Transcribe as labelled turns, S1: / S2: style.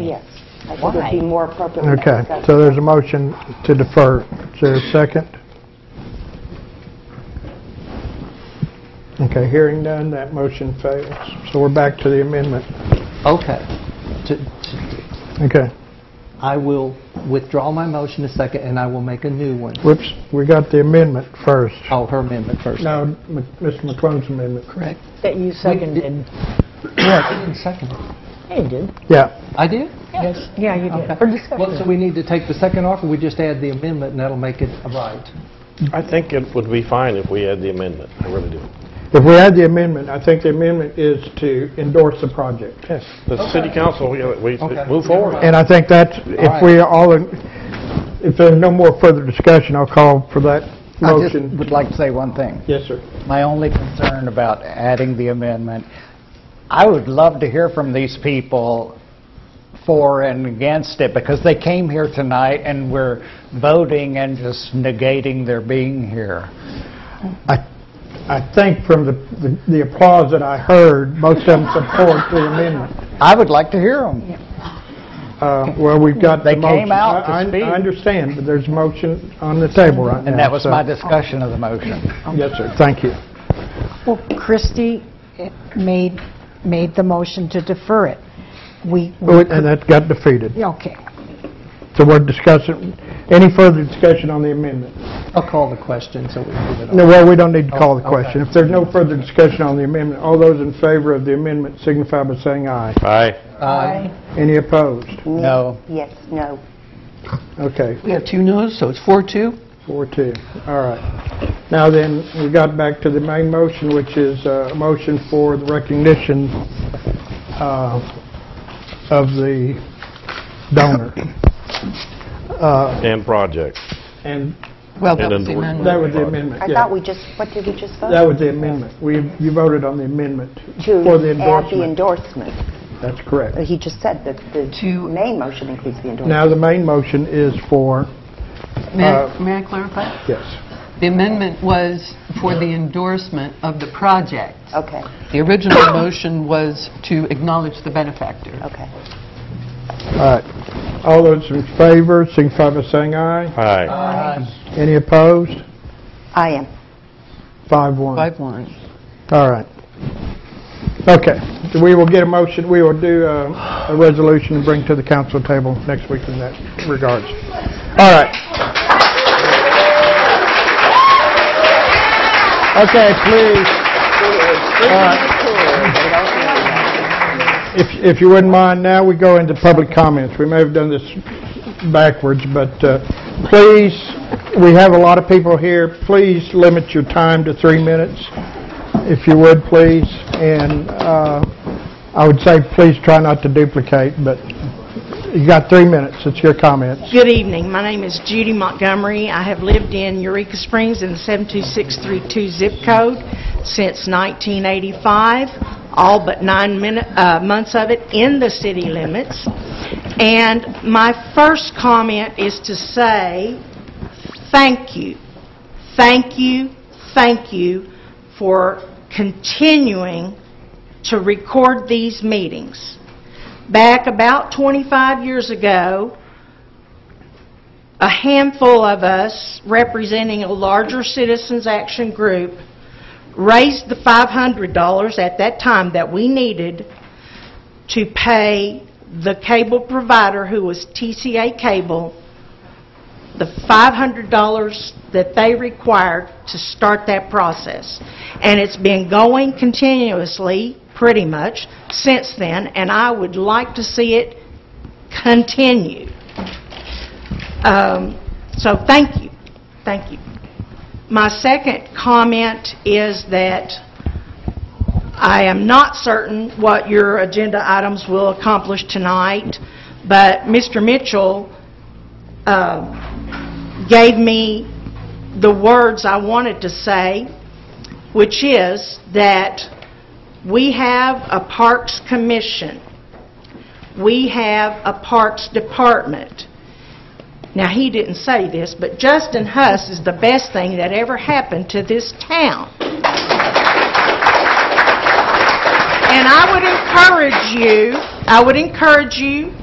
S1: yes. I think it'd be more appropriate. with that
S2: Okay,
S1: discussion.
S2: so there's a motion to defer. Is there a second? Okay, hearing none, that motion fails. So we're back to the amendment.
S3: Okay. To- to-
S2: Okay,
S3: I will withdraw my motion a second, and I will make a new one.
S2: whoops, we got the amendment first.
S3: Oh, her amendment first.
S2: No, M- Mr. McClung's amendment.
S3: Correct.
S4: That you seconded.
S3: I didn't second it.
S4: Yeah, you did.
S2: Yeah,
S3: I did?
S4: Yes. Yeah, you did.
S3: Okay.
S4: For
S3: Well, so
S4: discussion.
S3: we need to take the second off, or we just add the amendment, and that'll make it right?
S5: I think it would be fine if we had the amendment. I really do.
S2: if we had the amendment, I think the amendment is to endorse the project.
S5: Yes, the city council, yeah, we
S3: Okay.
S5: move forward.
S2: And I think that's, if
S3: right.
S2: we are all, in- if there's no more further discussion, I'll call for that
S6: I just
S2: motion.
S6: would like to say one thing.
S2: Yes, sir.
S6: My only concern about adding the amendment, I would love to hear from these people for and against it, because they came here tonight and we're voting and just negating their being here.
S2: I, I think from the- the the applause that I heard, most of them support the amendment.
S6: I would like to hear them.
S2: Uh, Well, we've got the
S6: They
S2: motion.
S6: came out to
S2: I- I-
S6: speak.
S2: I understand, but there's a motion on the table right now.
S6: And that was
S2: so-
S6: my discussion of the motion.
S2: Yes, sir, thank you.
S7: Well, Christie eh, made, made the motion to defer it. We, we-
S2: Oh, And that got defeated.
S7: okay.
S2: So we're discussing, any further discussion on the amendment?
S3: I'll call the question, so we move it on.
S2: No, well, we don't need to call the
S3: okay.
S6: Oh,
S2: question. If there's no further discussion on the amendment, all those in favor of the amendment signify by saying aye.
S5: Aye.
S3: Aye.
S2: Any opposed?
S6: No.
S1: Yes, no.
S2: Okay,
S8: We have two no's, so it's four, two.
S2: Four, two. All right. Now then, we got back to the main motion, which is uh, a motion for the recognition uh, of the donor. Uh,
S5: And project.
S2: And
S8: Well, that
S5: And
S8: was the
S5: then we-
S2: that
S8: amendment.
S2: was the amendment,
S1: I
S2: yeah.
S1: thought we just, what did we just vote?
S2: That was the amendment. We, you voted on the amendment
S1: To
S2: for the
S1: add
S2: endorsement.
S1: the endorsement.
S2: That's correct.
S1: He just said that the
S8: To-
S1: main motion includes the endorsement.
S2: Now, the main motion is for,
S8: May
S2: uh,
S8: I- may I clarify?
S2: yes,
S8: The amendment was for the endorsement of the project.
S1: Okay,
S8: The original motion was to acknowledge the benefactor.
S1: okay.
S2: all right. All those in favor, signify by saying aye.
S5: Aye.
S2: Any opposed?
S1: I am.
S2: Five, one.
S8: Five, one.
S2: All right. Okay, So we will get a motion, we will do uh, a resolution and bring to the council table next week in that regards. All right. Okay, please, if if you wouldn't mind, now we go into public comments. We may have done this backwards, but uh, please, we have a lot of people here, please limit your time to three minutes if you would, please. And uh, I would say, please try not to duplicate, but you got three minutes. It's your comments.
S9: Good evening. My name is Judy Montgomery. I have lived in Eureka Springs in the 72632 zip code since 1985, all but nine minu- uh, months of it in the city limits. And my first comment is to say, thank you, thank you, thank you for continuing to record these meetings. Back about 25 years ago, a handful of us representing a larger citizens action group raised the $500 at that time that we needed to pay the cable provider who was TCA Cable the $500 that they required to start that process. And it's been going continuously, pretty much, since then, and I would like to see it continue. Um, So thank you, thank you. My second comment is that I am not certain what your agenda items will accomplish tonight, but Mr. Mitchell uh, gave me the words I wanted to say, which is that we have a Parks Commission. We have a Parks Department. Now, he didn't say this, but Justin Huss is the best thing that ever happened to this town. And I would encourage you, I would encourage you